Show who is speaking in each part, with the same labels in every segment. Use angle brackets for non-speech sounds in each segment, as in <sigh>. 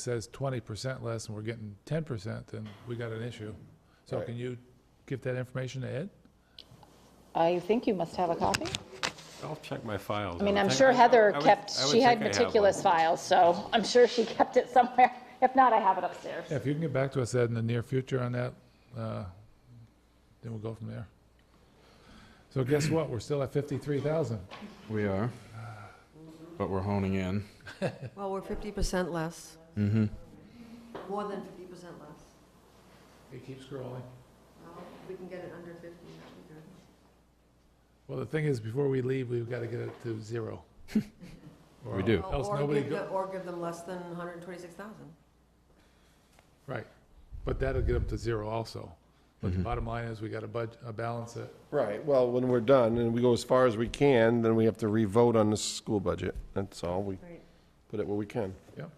Speaker 1: says twenty percent less and we're getting ten percent, then we got an issue. So
Speaker 2: Right.
Speaker 1: can you give that information to Ed?
Speaker 3: I think you must have a copy.
Speaker 4: I'll check my files.
Speaker 3: I mean,
Speaker 4: would
Speaker 3: I'm
Speaker 4: think-
Speaker 3: sure
Speaker 4: I- I-
Speaker 3: Heather
Speaker 4: I would-
Speaker 3: kept,
Speaker 4: I would
Speaker 3: she had
Speaker 4: think I have
Speaker 3: meticulous
Speaker 4: one.
Speaker 3: files, so I'm sure she kept it somewhere. If not, I have it upstairs.
Speaker 1: Yeah, If you can get back to us, Ed, in the near future on that, uh, then we'll go from there. So guess what? We're still at fifty-three thousand.
Speaker 2: We are, but we're honing in.
Speaker 5: Well, we're fifty percent less. Mm-hmm. More than fifty percent less.
Speaker 1: It keeps growing.
Speaker 5: Well, if We can get it under fifty, that'd be good.
Speaker 1: Well, the thing is, before we leave, we've got to get it to zero. Or
Speaker 2: <laughs> We do.
Speaker 1: Else
Speaker 5: Or- or
Speaker 1: nobody
Speaker 5: give
Speaker 1: go-
Speaker 5: the- Or give them less than hundred and twenty-six thousand.
Speaker 1: Right, but that'll get up to zero also. But the
Speaker 2: Mm-hmm.
Speaker 1: bottom line is, we got to bud, uh, balance it.
Speaker 6: Right, well, when we're done and we go as far as we can, then we have to re-vote on the school budget. That's all. We
Speaker 5: Right.
Speaker 6: put it where we can.
Speaker 1: Yep.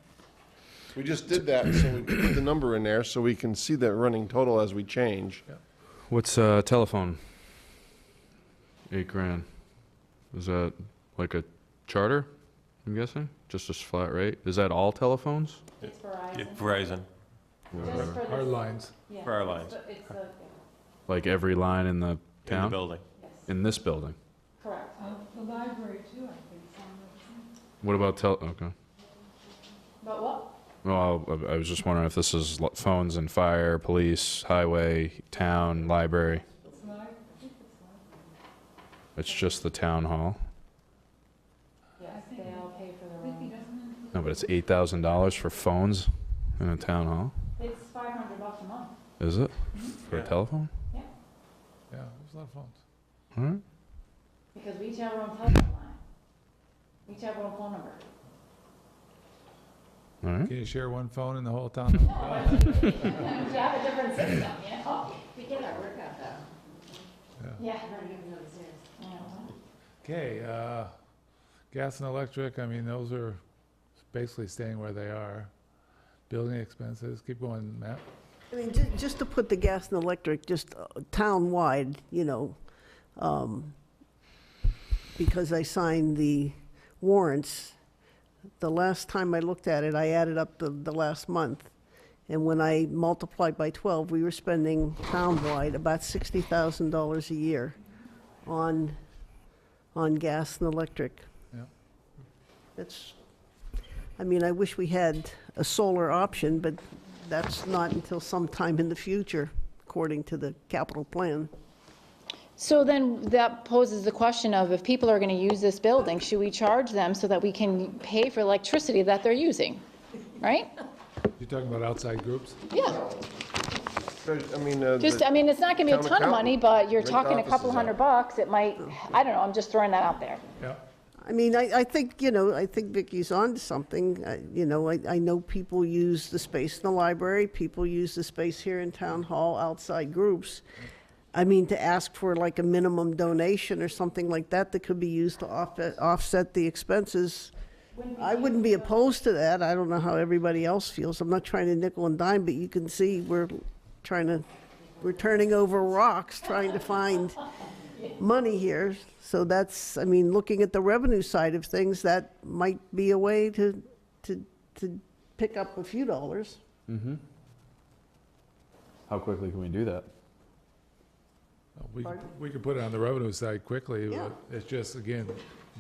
Speaker 6: We just did that, so we put the number in there so we can see the running total as we change.
Speaker 2: What's uh, telephone? Eight grand. Is that like a charter? I'm guessing just a flat rate. Is that all telephones?
Speaker 3: It's Verizon.
Speaker 4: Yeah, Verizon,
Speaker 3: Just for
Speaker 1: Our
Speaker 3: the-
Speaker 1: lines,
Speaker 3: yeah,
Speaker 4: for our
Speaker 3: it's
Speaker 4: lines.
Speaker 3: the- It's the,
Speaker 2: Like every line in the
Speaker 4: in the
Speaker 2: town
Speaker 4: building.
Speaker 3: yes,
Speaker 2: in this building.
Speaker 3: correct.
Speaker 7: The library too, I think, some of them.
Speaker 2: What about tel? Okay.
Speaker 3: But what?
Speaker 2: Well, I I was just wondering if this is lo- phones and fire, police, highway, town, library. It's just the town hall.
Speaker 3: Yes, they all pay for their own.
Speaker 2: No, but it's eight thousand dollars for phones in a town hall.
Speaker 3: It's 500 bucks a month.
Speaker 2: Is it for a
Speaker 4: Yeah.
Speaker 2: telephone?
Speaker 1: yeah, there's a lot of phones.
Speaker 2: All right.
Speaker 3: Because we each have our own telephone line. We each have our own phone number.
Speaker 2: All right.
Speaker 1: Can you share one phone in the whole town?
Speaker 3: No, I mean, we each have a different system, you <coughs> know? Oh, We get our work out though. Yeah. Yeah.
Speaker 1: Okay, uh, gas and electric, I mean, those are basically staying where they are. Building expenses, keep going, Matt.
Speaker 8: I mean, ju- just to put the gas and electric, just uh, town-wide, you know, um, because I signed the warrants, the last time I looked at it, I added up the, the last month. And when I multiplied by 12, we were spending town-wide about $60,000 a year on, on gas and electric.
Speaker 1: Yep.
Speaker 8: That's, I mean, I wish we had a solar option, but that's not until sometime in the future, according to the capital plan.
Speaker 3: So then that poses the question of if people are going to use this building, should we charge them so that we can pay for electricity that they're using? Right?
Speaker 1: You're talking about outside groups?
Speaker 3: Yeah,
Speaker 6: I mean, uh,
Speaker 3: just, I mean, it's not going to be a
Speaker 6: Town
Speaker 3: ton of money, but you're
Speaker 6: Rent
Speaker 3: talking a couple
Speaker 6: offices
Speaker 3: hundred
Speaker 6: out.
Speaker 3: bucks, it might, I don't know, I'm just throwing that out there.
Speaker 1: Yeah,
Speaker 8: I mean, I, I think, you know, I think Vicky's on to something. I- You know, I, I know people use the space in the library, people use the space here in town hall, outside groups. I mean, to ask for like a minimum donation or something like that that could be used to offset, offset the expenses. I wouldn't be opposed to that. I don't know how everybody else feels. I'm not trying to nickel and dime, but you can see we're trying to, we're turning over rocks, trying to find money here. So that's, I mean, looking at the revenue side of things, that might be a way to, to, to pick up a few dollars.
Speaker 2: How quickly can we do that?
Speaker 1: we,
Speaker 8: Pardon?
Speaker 1: we could put it on the revenue side quickly,
Speaker 8: Yeah.
Speaker 1: but it's just, again,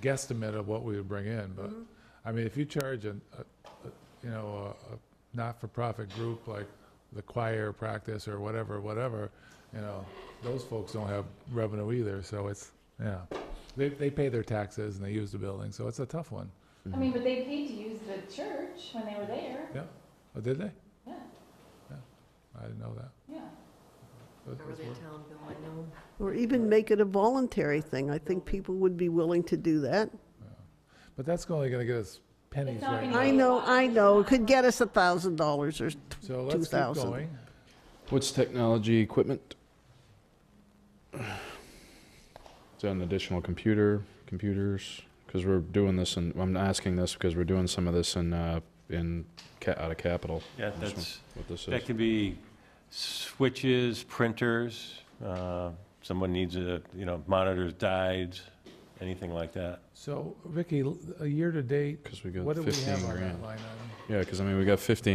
Speaker 1: guesstimate of what we would bring in, but,
Speaker 8: Mm-hmm.
Speaker 1: I mean, if you charge an, a, a- you know, a, a not-for-profit group like the choir practice or whatever, whatever, you know, those folks don't have revenue either, so it's, yeah. They, they pay their taxes and they use the building, so it's a tough one.
Speaker 3: I mean, but they paid to use the church when they were there,
Speaker 1: Yeah, oh, did they?
Speaker 3: yeah,
Speaker 1: I didn't know that.
Speaker 3: yeah.
Speaker 1: But
Speaker 5: Over
Speaker 1: it's
Speaker 5: their
Speaker 1: worth-
Speaker 5: town bill, I know.
Speaker 8: Or even make it a voluntary thing. I think people would be willing to do that.
Speaker 1: But that's only gonna get us pennies
Speaker 3: not
Speaker 1: right
Speaker 3: gonna
Speaker 1: now.
Speaker 8: I know, I know, could get us a thousand dollars or
Speaker 1: So
Speaker 8: two
Speaker 1: let's keep
Speaker 8: thousand.
Speaker 1: going.
Speaker 2: What's technology equipment? Is that an additional computer, computers? Because we're doing this, and I'm asking this because we're doing some of this in uh, in ca- out of capital.
Speaker 4: Yeah,
Speaker 2: This one.
Speaker 4: that's,
Speaker 2: What this is.
Speaker 4: that could be switches, printers, uh, someone needs a, you know, monitors, diodes, anything like that.
Speaker 1: So, Ricky, l- a year-to-date,
Speaker 2: Because we got
Speaker 1: what do we have
Speaker 2: 15
Speaker 1: on
Speaker 2: grand.
Speaker 1: that line item?
Speaker 2: Yeah, because I mean, we got 15